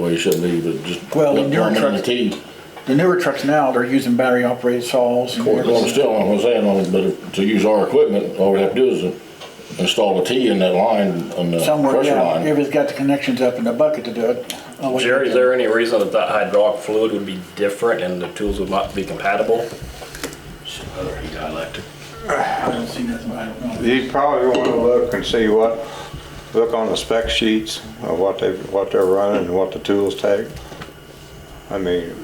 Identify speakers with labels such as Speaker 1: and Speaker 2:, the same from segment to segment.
Speaker 1: way it should be, but just.
Speaker 2: Well, the newer
Speaker 1: plumbing and
Speaker 2: trucks-
Speaker 1: the key.
Speaker 2: The newer trucks now, they're using battery operated saws. and
Speaker 1: Mm-hmm. Well,
Speaker 2: everything.
Speaker 1: still, I'm gonna say, I'm gonna- but to use our equipment, all we have to do is install a T in that line, on the
Speaker 2: Somewhere,
Speaker 1: pressure
Speaker 2: yeah,
Speaker 1: line.
Speaker 2: everybody's got the connections up in the bucket to do it. Oh, wait,
Speaker 3: Jerry, is there any reason that that hydraulic fluid would be different and the tools would not be
Speaker 2: I
Speaker 3: compatible?
Speaker 2: don't see nothing, I don't know.
Speaker 4: You probably want to look and see what, look on the spec sheets of what they, what they're running and what the tools take. I mean,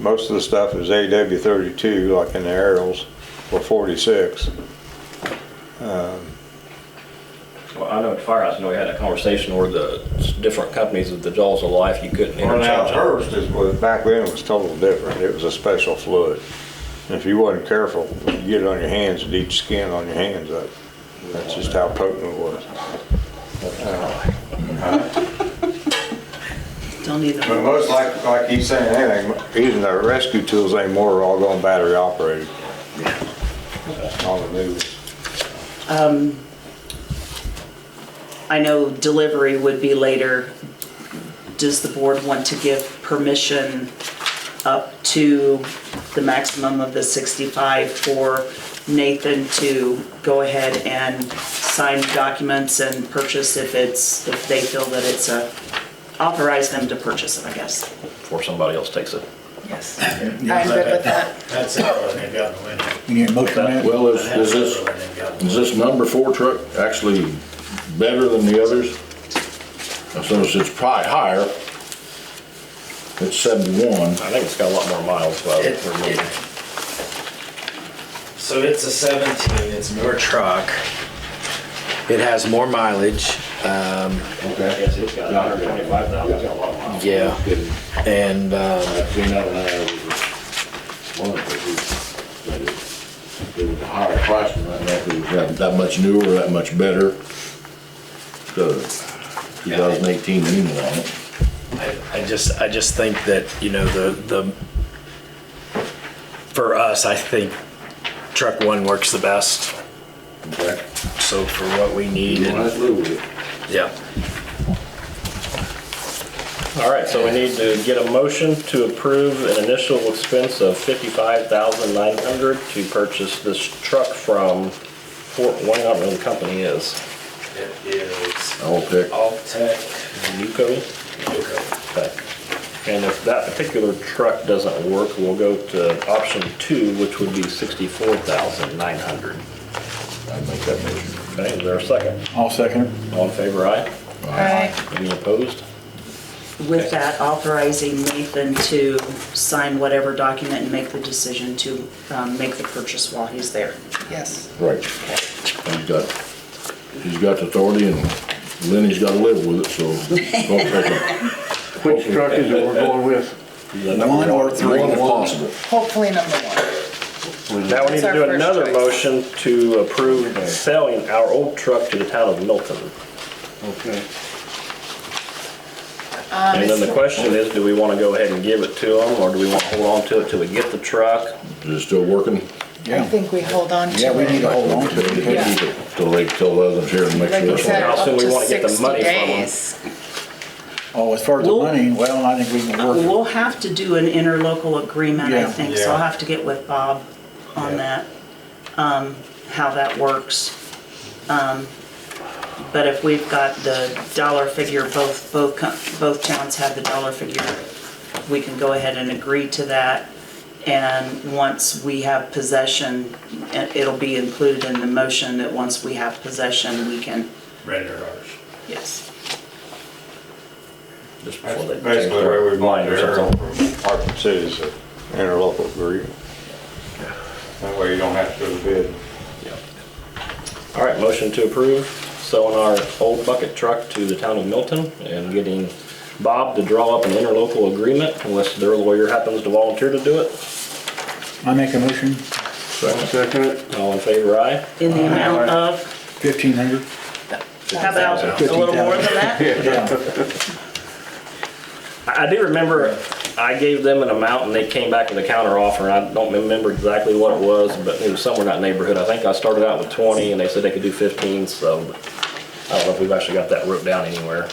Speaker 4: most of the stuff is AW thirty-two, like in the aerials, or forty-six.
Speaker 3: Well, I know at Firehouse, I know we had a conversation where the s- different companies with the jaws of life, you couldn't
Speaker 4: Well, now,
Speaker 3: interchange them.
Speaker 4: hers is, was- back then it was totally different, it was a special fluid. And if you wasn't careful, you'd get it on your hands, it'd eat your skin on your hands up. That's just how potent it was.
Speaker 5: Don't even.
Speaker 4: But most like, like he's saying, anything, even the rescue tools anymore are all going battery operated. All the new,
Speaker 5: I know delivery would be later. Does the board want to give permission up to the maximum of the 65 for Nathan to go ahead and sign documents and purchase if it's, if they feel that it's a, authorize them to purchase it, I guess?
Speaker 3: Before somebody else takes it.
Speaker 5: Yes.
Speaker 6: I'm good with that.
Speaker 7: That's it, when they've got the window.
Speaker 2: You need a motion on that?
Speaker 1: Well, is, is
Speaker 7: That's
Speaker 1: this,
Speaker 7: it, when they've got the
Speaker 1: is this number four truck actually better than the others? I suppose it's probably higher. It's seventy-one.
Speaker 3: I think it's got a lot more miles, but
Speaker 7: It- it- So it's a 17, it's newer truck. It has more mileage, um,
Speaker 3: it's got 125,000, it's got a lot of miles.
Speaker 7: yeah, and, um,
Speaker 1: Between that and I, one of the, that it, it was a higher price than that, that it was that- that much newer, that much better. So, two thousand eighteen unit on it.
Speaker 7: I I just, I just think that, you know, the, the, for us, I think truck one works the best. So for what we need, and- yeah.
Speaker 3: All right, so we need to get a motion to approve an initial expense of 55,900 to purchase this truck from Fort Wayne, I don't know who the company is.
Speaker 7: It is
Speaker 1: All pick.
Speaker 7: Altech.
Speaker 3: Newco?
Speaker 7: Okay.
Speaker 3: Okay. And if that particular truck doesn't work, we'll go to option two, which would be sixty-four thousand nine hundred.
Speaker 1: I'd make that motion.
Speaker 3: Okay, is there a second?
Speaker 2: I'll second it.
Speaker 3: All in favor, aye?
Speaker 6: Alright.
Speaker 3: Any opposed?
Speaker 5: With that, authorizing Nathan to sign whatever document and make the decision to um, make the purchase while he's there.
Speaker 6: Yes.
Speaker 1: Right. He's got, he's got the authority and Lenny's gotta live with it, so. don't pick him.
Speaker 8: Which truck is it we're going with?
Speaker 2: One or three.
Speaker 1: One if possible.
Speaker 6: Hopefully number one.
Speaker 3: Now we need
Speaker 6: That's
Speaker 3: to
Speaker 6: our
Speaker 3: do
Speaker 6: first
Speaker 3: another
Speaker 6: choice.
Speaker 3: motion to approve selling our old truck to the town of Milton.
Speaker 8: Okay.
Speaker 6: Um,
Speaker 3: And then the
Speaker 6: it's-
Speaker 3: question is, do we want to go ahead and give it to them, or do we want to hold on to it till we get the truck?
Speaker 1: Is it still working?
Speaker 6: I
Speaker 2: Yeah,
Speaker 6: think we hold on to it.
Speaker 2: yeah, we need to hold on to it.
Speaker 1: They keep it Till they, till others here and make
Speaker 6: Like
Speaker 1: sure
Speaker 6: you
Speaker 1: this
Speaker 6: said,
Speaker 1: one.
Speaker 3: How
Speaker 6: up
Speaker 3: soon we
Speaker 6: to
Speaker 3: wanna get the
Speaker 6: 60
Speaker 3: money from 'em?
Speaker 6: days.
Speaker 2: Oh, as far as the
Speaker 5: Well-
Speaker 2: money, well, I think we can work. it.
Speaker 5: We'll have to do an interlocal agreement, I
Speaker 2: Yeah.
Speaker 5: think, so I'll
Speaker 4: Yeah.
Speaker 5: have to get with Bob on that, um, how that works. Um, But if we've got the dollar figure, both, both, co- both towns have the dollar figure, we can go ahead and agree to that. And once we have possession, it- it'll be included in the motion that once we have possession, we can,
Speaker 7: Render ours.
Speaker 5: yes.
Speaker 3: Just before they change
Speaker 4: that's basically the way
Speaker 3: their
Speaker 4: we want
Speaker 3: mind
Speaker 4: to
Speaker 3: or
Speaker 4: hear
Speaker 3: something.
Speaker 4: from Hartford City is an interlocal agreement. That way you don't have to go to bid.
Speaker 3: All right, motion to approve selling our old bucket truck to the town of Milton and getting Bob to draw up an interlocal agreement unless their lawyer happens to volunteer to do it.
Speaker 2: I make a motion,
Speaker 8: Second it?
Speaker 3: All in favor, aye?
Speaker 5: In the amount of,
Speaker 2: fifteen hundred.
Speaker 5: how about a little more than that?
Speaker 2: Yeah,
Speaker 3: I I do remember I gave them an amount and they came back with a counter offer. I don't remember exactly what it was, but it was somewhere in that neighborhood. I think I started out with 20 and they said they could do 15, so I don't know if we've actually got that wrote down anywhere.